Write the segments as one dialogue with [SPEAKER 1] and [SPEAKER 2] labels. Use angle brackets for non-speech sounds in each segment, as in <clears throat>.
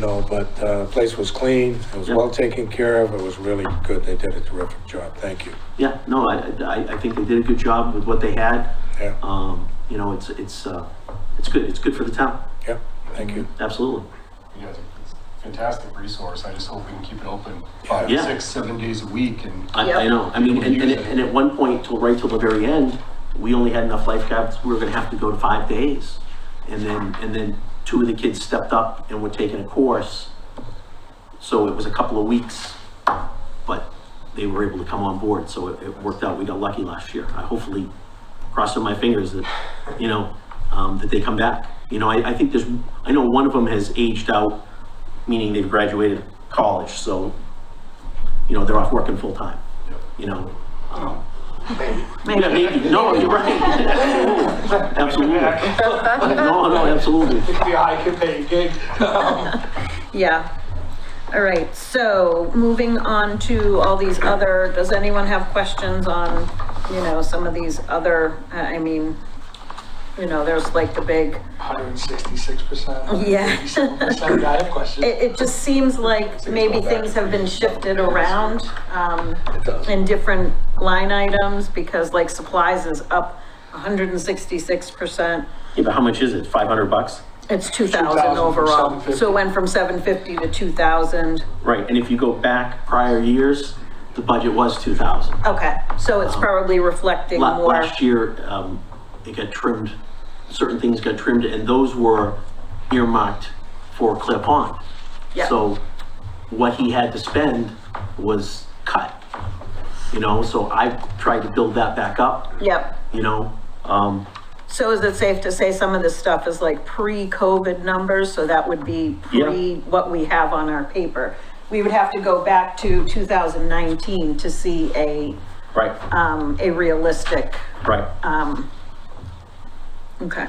[SPEAKER 1] you know, but the place was clean, it was
[SPEAKER 2] Yeah.
[SPEAKER 1] well taken care of, it was really good, they did a terrific job, thank you.
[SPEAKER 2] Yeah, no, I, I, I think they did a good job with what they had.
[SPEAKER 1] Yeah,
[SPEAKER 2] Um, you know, it's, it's, uh, it's good, it's good for the town,
[SPEAKER 1] yeah, thank you.
[SPEAKER 2] absolutely.
[SPEAKER 3] You guys are a fantastic resource. I just hope we can keep it open five,
[SPEAKER 2] Yeah.
[SPEAKER 3] six, seven days a week and.
[SPEAKER 2] I, I know, I mean, and, and, and at one point till, right till the very end, we only had enough lifeguards, we were gonna have to go to five days. And then, and then two of the kids stepped up and were taking a course. So it was a couple of weeks, but they were able to come on board, so it, it worked out, we got lucky last year. I hopefully, crossing my fingers that, you know, um, that they come back. You know, I, I think there's, I know one of them has aged out, meaning they've graduated college, so, you know, they're off working full-time you know.
[SPEAKER 4] Oh.
[SPEAKER 2] um, Yeah, maybe, no, you're
[SPEAKER 4] <laughs>
[SPEAKER 2] right. Absolutely. No, no, absolutely.
[SPEAKER 3] Be a high paying gig.
[SPEAKER 4] Yeah. All right, so moving on to all these other, does anyone have questions on, you know, some of these other, uh, I I mean, you know, there's like the big,
[SPEAKER 5] hundred and sixty-six percent.
[SPEAKER 4] Yeah.
[SPEAKER 5] Percent, I have questions.
[SPEAKER 4] it, it just seems like maybe things have been shifted around, um, in different line items, because like supplies is up hundred and sixty-six percent.
[SPEAKER 2] Yeah, but how much is it? Five hundred bucks?
[SPEAKER 4] It's two thousand
[SPEAKER 5] 2,000 from
[SPEAKER 4] overall,
[SPEAKER 5] 750.
[SPEAKER 4] so it went from seven fifty to two thousand.
[SPEAKER 2] Right, and if you go back prior years, the budget was two thousand.
[SPEAKER 4] Okay, so it's probably reflecting more.
[SPEAKER 2] Last year, um, it got trimmed, certain things got trimmed, and those were earmarked for Clear Pond.
[SPEAKER 4] Yeah.
[SPEAKER 2] So what he had to spend was cut, you know, so I tried to build that back up,
[SPEAKER 4] Yep.
[SPEAKER 2] you know? Um,
[SPEAKER 4] So is it safe to say some of this stuff is like pre-COVID numbers, so that would be pre
[SPEAKER 2] Yeah.
[SPEAKER 4] what we have on our paper? We would have to go back to 2019 to see a,
[SPEAKER 2] right,
[SPEAKER 4] um, a realistic,
[SPEAKER 2] right.
[SPEAKER 4] okay.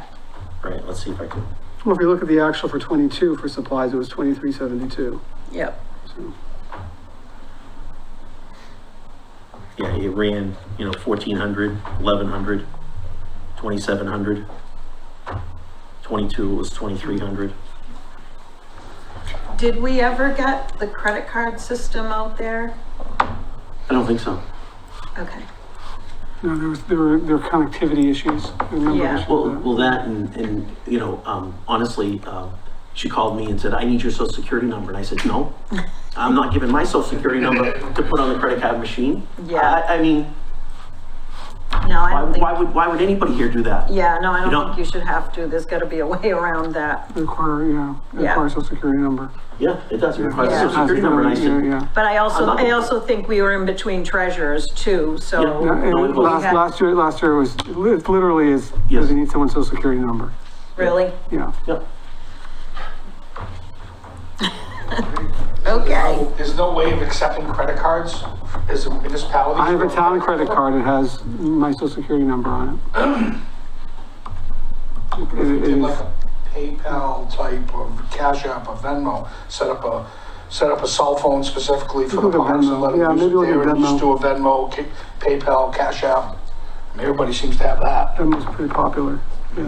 [SPEAKER 2] Right, let's see if I can,
[SPEAKER 6] Well, if you look at the actual for twenty-two for supplies, it was twenty-three seventy-two.
[SPEAKER 4] Yep,
[SPEAKER 2] yeah, it ran, you know, 1,400, 1,100, 2,700. 22 was 2,300.
[SPEAKER 4] did we ever get the credit card system out there?
[SPEAKER 2] I don't think so.
[SPEAKER 4] Okay,
[SPEAKER 6] No, there was, there were, there were connectivity issues. I remember
[SPEAKER 4] Yeah.
[SPEAKER 6] issues
[SPEAKER 2] Well,
[SPEAKER 6] with that.
[SPEAKER 2] well, that and, and, you know, um, honestly, uh, she called me and said, I need your social security number. And I said, no, I'm not giving my social security number to put on the credit card machine.
[SPEAKER 4] Yeah.
[SPEAKER 2] I, I mean,
[SPEAKER 4] no, I
[SPEAKER 2] why,
[SPEAKER 4] don't
[SPEAKER 2] why
[SPEAKER 4] think,
[SPEAKER 2] would, why would anybody here do that?
[SPEAKER 4] yeah, no, I
[SPEAKER 2] You
[SPEAKER 4] don't
[SPEAKER 2] don't-
[SPEAKER 4] think you should have to, there's gotta be a way around that.
[SPEAKER 6] Require, yeah,
[SPEAKER 4] Yeah.
[SPEAKER 6] require social security number.
[SPEAKER 2] Yeah, it does, it requires a
[SPEAKER 4] Yeah.
[SPEAKER 2] social security number. And I
[SPEAKER 6] Yeah,
[SPEAKER 2] said,
[SPEAKER 6] yeah.
[SPEAKER 4] But I also,
[SPEAKER 2] I'm not-
[SPEAKER 4] I also think we were in between treasurers too, so.
[SPEAKER 2] Yeah.
[SPEAKER 6] Yeah,
[SPEAKER 2] No, it
[SPEAKER 6] and
[SPEAKER 2] was-
[SPEAKER 6] last, last year, last year was, it literally is,
[SPEAKER 2] Yes.
[SPEAKER 6] does he need someone's social security number?
[SPEAKER 4] Really?
[SPEAKER 6] Yeah.
[SPEAKER 2] yeah,
[SPEAKER 4] Okay.
[SPEAKER 5] There's no way of accepting credit cards as a municipality.
[SPEAKER 6] I have a town credit card, it has my social security number on it. <clears throat> It-
[SPEAKER 5] If you
[SPEAKER 6] it
[SPEAKER 5] did
[SPEAKER 6] is-
[SPEAKER 5] like a PayPal type of Cash App or Venmo, set up a, set up a cell phone specifically for the
[SPEAKER 6] Look at
[SPEAKER 5] parks and
[SPEAKER 6] Venmo.
[SPEAKER 5] let
[SPEAKER 6] Yeah,
[SPEAKER 5] them use
[SPEAKER 6] maybe
[SPEAKER 5] it
[SPEAKER 6] look at
[SPEAKER 5] there. and Just
[SPEAKER 6] Venmo.
[SPEAKER 5] do a Venmo, K- PayPal, Cash App. And Everybody seems to have that.
[SPEAKER 6] That was pretty popular.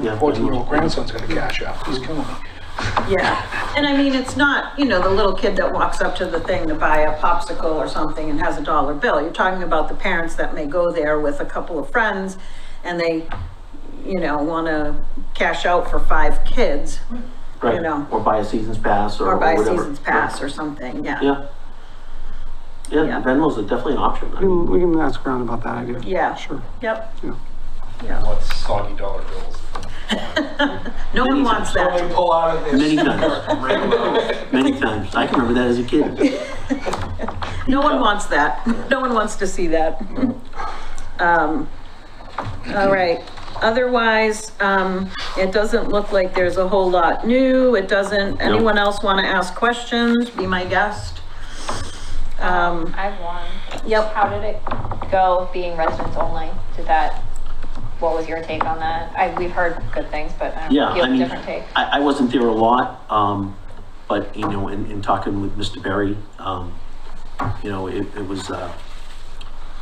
[SPEAKER 2] yeah.
[SPEAKER 5] Fourteen-year-old grandson's gonna cash out. He's killing me.
[SPEAKER 4] Yeah, and I mean, it's not, you know, the little kid that walks up to the thing to buy a popsicle or something and has a dollar bill. You're talking about the parents that may go there with a couple of friends and they, you know, want to cash out for five kids
[SPEAKER 2] Right.
[SPEAKER 4] know.
[SPEAKER 2] Or buy a season's pass or
[SPEAKER 4] or buy a
[SPEAKER 2] whatever.
[SPEAKER 4] season's pass or something, yeah.
[SPEAKER 2] Yeah. Yeah,
[SPEAKER 4] Yeah.
[SPEAKER 2] Venmo's a- definitely an option. I
[SPEAKER 6] We
[SPEAKER 2] mean,
[SPEAKER 6] can, we can ask around about that idea.
[SPEAKER 4] Yeah.
[SPEAKER 6] Sure.
[SPEAKER 4] Yep,
[SPEAKER 6] Yeah.
[SPEAKER 4] yeah.
[SPEAKER 3] What's soggy dollar bills?
[SPEAKER 4] No one wants that.
[SPEAKER 5] They pull out
[SPEAKER 3] Mm.
[SPEAKER 5] of this.
[SPEAKER 2] Many times, many times. I can remember that as a kid.
[SPEAKER 4] No one wants that. No one wants to see that. Um, all right. Otherwise, um, it doesn't look like there's a whole lot new. It doesn't, anyone else want to ask questions? Be my guest. Um,
[SPEAKER 7] I have one.
[SPEAKER 4] Yep.
[SPEAKER 7] How did it go being residents only? Did that, what was your take on that? I, we've heard good things, but I don't
[SPEAKER 2] Yeah,
[SPEAKER 7] know, you
[SPEAKER 2] I
[SPEAKER 7] have a
[SPEAKER 2] mean,
[SPEAKER 7] different take.
[SPEAKER 2] I, I wasn't there a lot, um, but, you know, in, in talking with Mr. Berry, um, you know, it, it was, uh,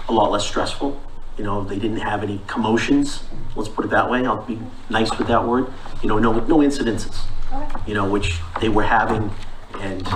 [SPEAKER 2] a lot less stressful. You know, they didn't have any commotions, let's put it that way. I'll be nice with that word. You know, no, no incidences.
[SPEAKER 7] Okay.
[SPEAKER 2] you know, which they were having And